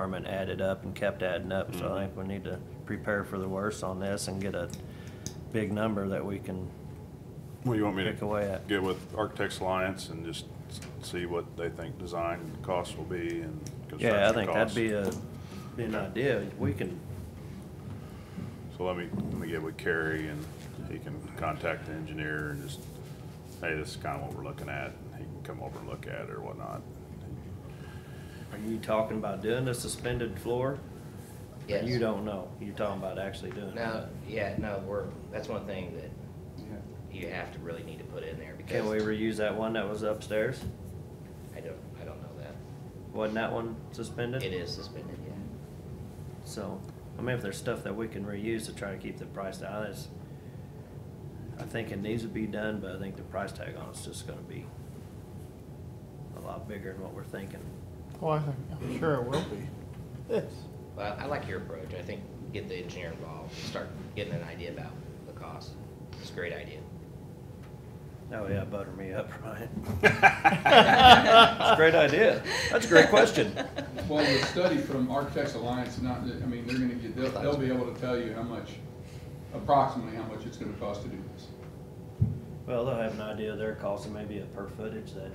department added up and kept adding up, so I think we need to prepare for the worst on this and get a big number that we can Well, you want me pick to away at. get with Architects Alliance and just s- see what they think design costs will be and Yeah, I construction think that'd costs? be a, be an idea, we can, So let me, let me get with Kerry and he can contact the engineer and just, hey, this is kind of what we're looking at. He can come over and look at it or whatnot. are you talking about doing the suspended floor? Or Yes. You don't know, you're talking about actually doing No, it. yeah, no, we're, that's one thing that you have to really need to put in there because Can we reuse that one that was upstairs? I don't, I don't know that. Wasn't that one suspended? It is suspended, yeah. So, I mean, if there's stuff that we can reuse to try to keep the price down, it's, I think it needs to be done, but I think the price tag on it's just gonna be a lot bigger than what we're thinking. Oh, I think, I'm sure it will be. Yes. Well, I like your approach. I think get the engineer involved, start getting an idea about the cost. It's a great idea. Oh, yeah, butter me up, Ryan. That's a great idea. That's a great question. Well, the study from Architects Alliance, not, I mean, they're gonna get, they'll, they'll be able to tell you how much, approximately how much it's gonna cost to do this. Well, they'll have an idea of their cost and maybe a per footage that,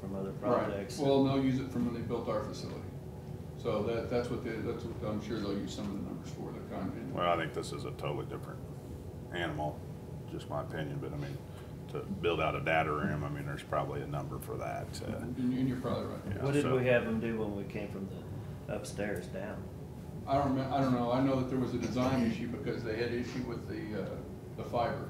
from other Right. projects. Well, and they'll use it from when they built our facility. So that, that's what they, that's what, I'm sure they'll use some of the numbers for their content. Well, I think this is a totally different animal, just my opinion, but I mean, to build out a data room, I mean, there's probably a number for that. uh, And you- and you're probably right. yeah, What did so- we have them do when we came from the upstairs down? I don't, remem- I don't know, I know that there was a design issue because they had issue with the, uh, the fiber.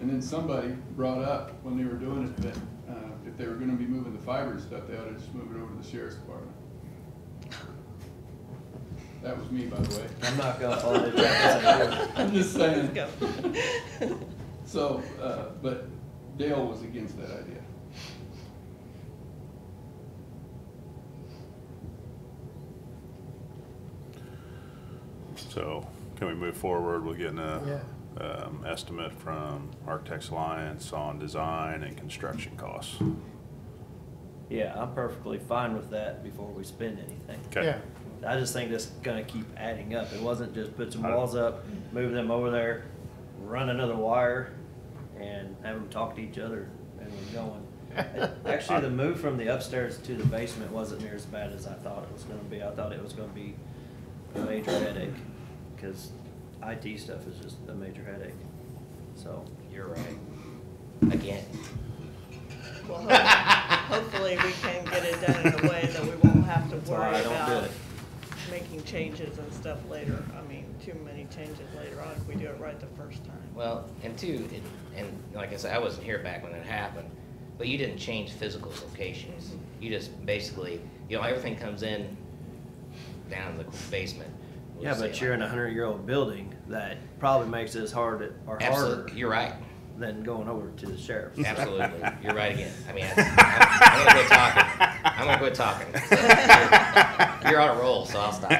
And then somebody brought up when they were doing it that, uh, if they were gonna be moving the fiber and stuff, they ought to just move it over to the sheriff's department. That was me, by the way. I'm not gonna follow the directions. I'm just saying. So, uh, but Dale was against that idea. So can we move forward with getting a, Yeah. um, estimate from Architects Alliance on design and construction costs? Yeah, I'm perfectly fine with that before we spend anything. Okay, I just think that's gonna keep adding up. It wasn't just put some I- walls up, move them over there, run another wire, and have them talk to each other and we're going. Actually, the move from the upstairs to the basement wasn't near as bad as I thought it was gonna be. I thought it was gonna be a major headache, cause IT stuff is just a major headache. So, You're right. Again, Well, ho- hopefully, we can get it done in a way that we won't have to that's why worry I don't do about it. making changes and stuff later. I mean, too many changes later on if we do it right the first time. well, and two, it- and like I said, I wasn't here back when it happened, but you didn't change physical locations. Mm-hmm. You just basically, you know, everything comes in down in the basement. We'll Yeah, say but like- you're in a hundred-year-old building that probably makes it as hard or harder Absolutely, you're right. than going over to the sheriff's. Absolutely, you're right again. I mean, I- I'm, I'm gonna quit talking. I'm gonna quit talking. You're, you're on a roll, so I'll stop.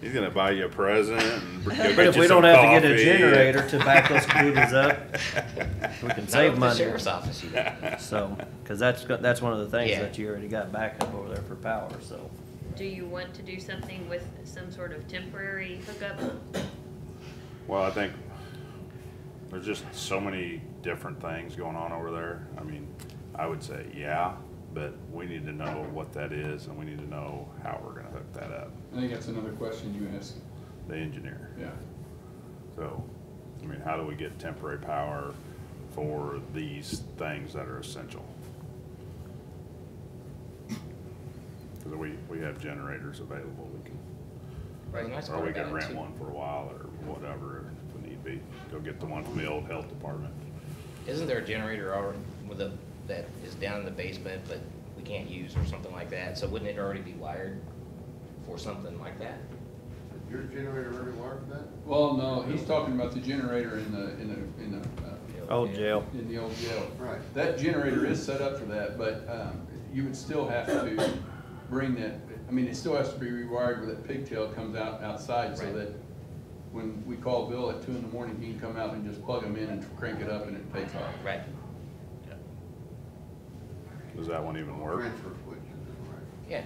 he's gonna buy you a present and. go But get if you we some don't have to get coffee. a generator to back those computers up, we can Not at save the money. Sheriff's office, you know. So, cause that's, go- that's one of the things Yeah. that you already got backup over there for power, so. Do you want to do something with some sort of temporary hookup? Well, I think there's just so many different things going on over there. I mean, I would say, yeah, but we need to know what that is and we need to know how we're gonna hook that up, I think that's another question you asked, the engineer. yeah. So, I mean, how do we get temporary power for these things that are essential? Cause we, we have generators available, we can, Right, the nice or part we about can it, rent too, one for a while or whatever if need be. Go get the one from the old health department. Isn't there a generator already with a, that is down in the basement, but we can't use or something like that? So wouldn't it already be wired for something like that? Your generator already wired for that? Well, no, he's talking about the generator in the, in the, in the, uh, Oh, jail. in the old jail. Right. That generator is set up for that, but um, you would still have to bring that, I mean, it still has to be rewired where that pigtail comes out outside so Right. that when we call Bill at two in the morning, he can come out and just plug them in and crank it up and it takes off. Right. Does that one even work? Transfer switch is in, right? Yeah,